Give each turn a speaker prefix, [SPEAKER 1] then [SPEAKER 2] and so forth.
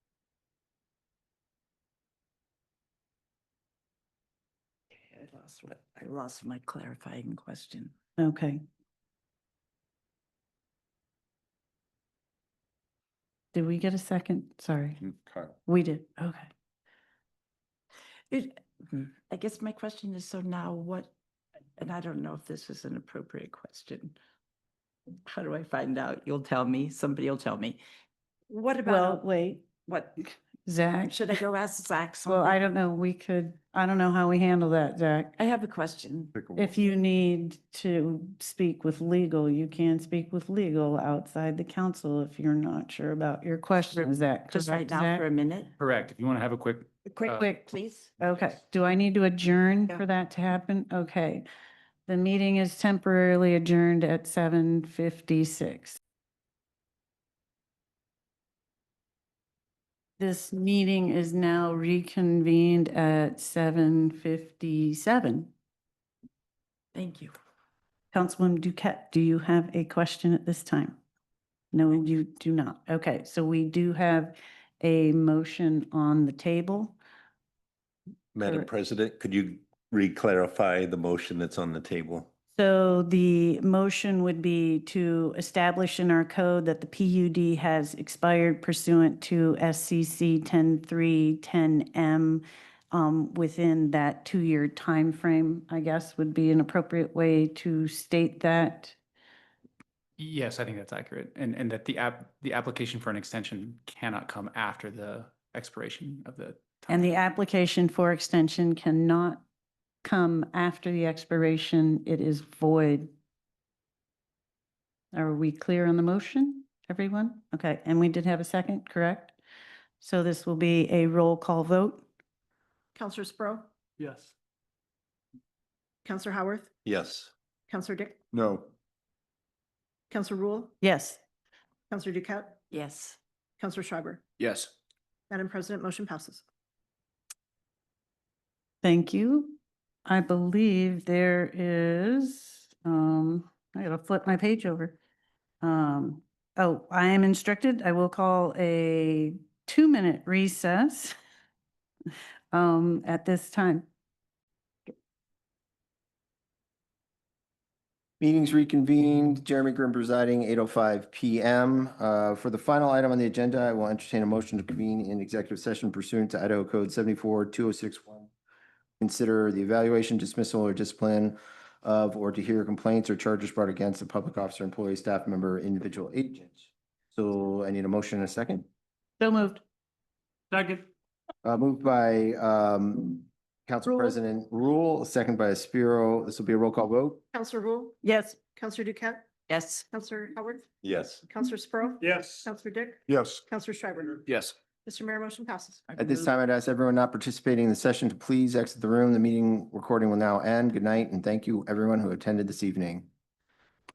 [SPEAKER 1] I lost what, I lost my clarifying question.
[SPEAKER 2] Okay. Did we get a second? Sorry, we did. Okay.
[SPEAKER 1] It, hmm, I guess my question is, so now what, and I don't know if this is an appropriate question. How do I find out? You'll tell me, somebody will tell me. What
[SPEAKER 2] Well,
[SPEAKER 1] about,
[SPEAKER 2] wait,
[SPEAKER 1] what,
[SPEAKER 2] Zach.
[SPEAKER 1] should I go ask Zach?
[SPEAKER 2] Well, I
[SPEAKER 1] something?
[SPEAKER 2] don't know. We could, I don't know how we handle that, Zach.
[SPEAKER 1] I have a question.
[SPEAKER 2] If you need to speak with legal, you can speak with legal outside the council if you're not sure about your question. Is that
[SPEAKER 1] Just right
[SPEAKER 2] correct,
[SPEAKER 1] now for a
[SPEAKER 2] Zach?
[SPEAKER 1] minute?
[SPEAKER 3] Correct. If you want to have a quick,
[SPEAKER 2] Quick,
[SPEAKER 3] uh,
[SPEAKER 2] quick.
[SPEAKER 1] Please?
[SPEAKER 2] Okay, do I need to adjourn
[SPEAKER 1] Yeah.
[SPEAKER 2] for that to happen? Okay. The meeting is temporarily adjourned at seven fifty-six. This meeting is now reconvened at seven fifty-seven.
[SPEAKER 1] Thank you.
[SPEAKER 2] Councilwoman Duquette, do you have a question at this time? No, you do not. Okay, so we do have a motion on the table.
[SPEAKER 4] Madam
[SPEAKER 2] Correct.
[SPEAKER 4] President, could you re-clarify the motion that's on the table?
[SPEAKER 2] So the motion would be to establish in our code that the PUD has expired pursuant to SCC 10310M um, within that two-year time frame. I guess, would be an appropriate way to state that.
[SPEAKER 3] yes, I think that's accurate. And, and that the app, the application for an extension cannot come after the expiration of the.
[SPEAKER 2] And the
[SPEAKER 3] timeframe.
[SPEAKER 2] application for extension cannot come after the expiration. It is void. Are we clear on the motion, everyone? Okay, and we did have a second, correct? So this will be a roll call vote.
[SPEAKER 5] Counselor Sprow,
[SPEAKER 3] Yes.
[SPEAKER 5] Counselor Howarth,
[SPEAKER 4] Yes.
[SPEAKER 5] Counselor Dick,
[SPEAKER 4] No.
[SPEAKER 5] Counselor Rule,
[SPEAKER 2] Yes.
[SPEAKER 5] Counselor Ducat,
[SPEAKER 1] Yes.
[SPEAKER 5] Counselor Schreiber.
[SPEAKER 3] Yes.
[SPEAKER 5] Madam President, motion passes.
[SPEAKER 2] Thank you. I believe there is, um, I gotta flip my page over. Um, oh, I am instructed, I will call a two-minute recess um, at this time.
[SPEAKER 6] Meetings reconvened. Jeremy Grimm presiding, 8:05 PM. Uh, For the final item on the agenda, I will entertain a motion to convene in executive session pursuant to Idaho Code 74-2061. Consider the evaluation, dismissal, or discipline of, or to hear complaints or charges brought against a public officer, employee, staff member, individual agent. So I need a motion and a second.
[SPEAKER 2] So moved.
[SPEAKER 3] Second.
[SPEAKER 6] Uh, Moved by um, Council
[SPEAKER 2] Rule.
[SPEAKER 6] President Rule, second by Spiro. This will be a roll call vote.
[SPEAKER 5] Counselor Rule,
[SPEAKER 2] Yes.
[SPEAKER 5] Counselor Ducat,
[SPEAKER 1] Yes.
[SPEAKER 5] Counselor Howarth,
[SPEAKER 4] Yes.
[SPEAKER 5] Counselor Sprow.
[SPEAKER 3] Yes.
[SPEAKER 5] Counselor Dick,
[SPEAKER 4] Yes.
[SPEAKER 5] Counselor Schreiber.
[SPEAKER 3] Yes.
[SPEAKER 5] Mr. Mayor, motion passes.
[SPEAKER 6] At this time, I'd ask everyone not participating in the session to please exit the room. The meeting recording will now end. Good night, and thank you, everyone who attended this evening.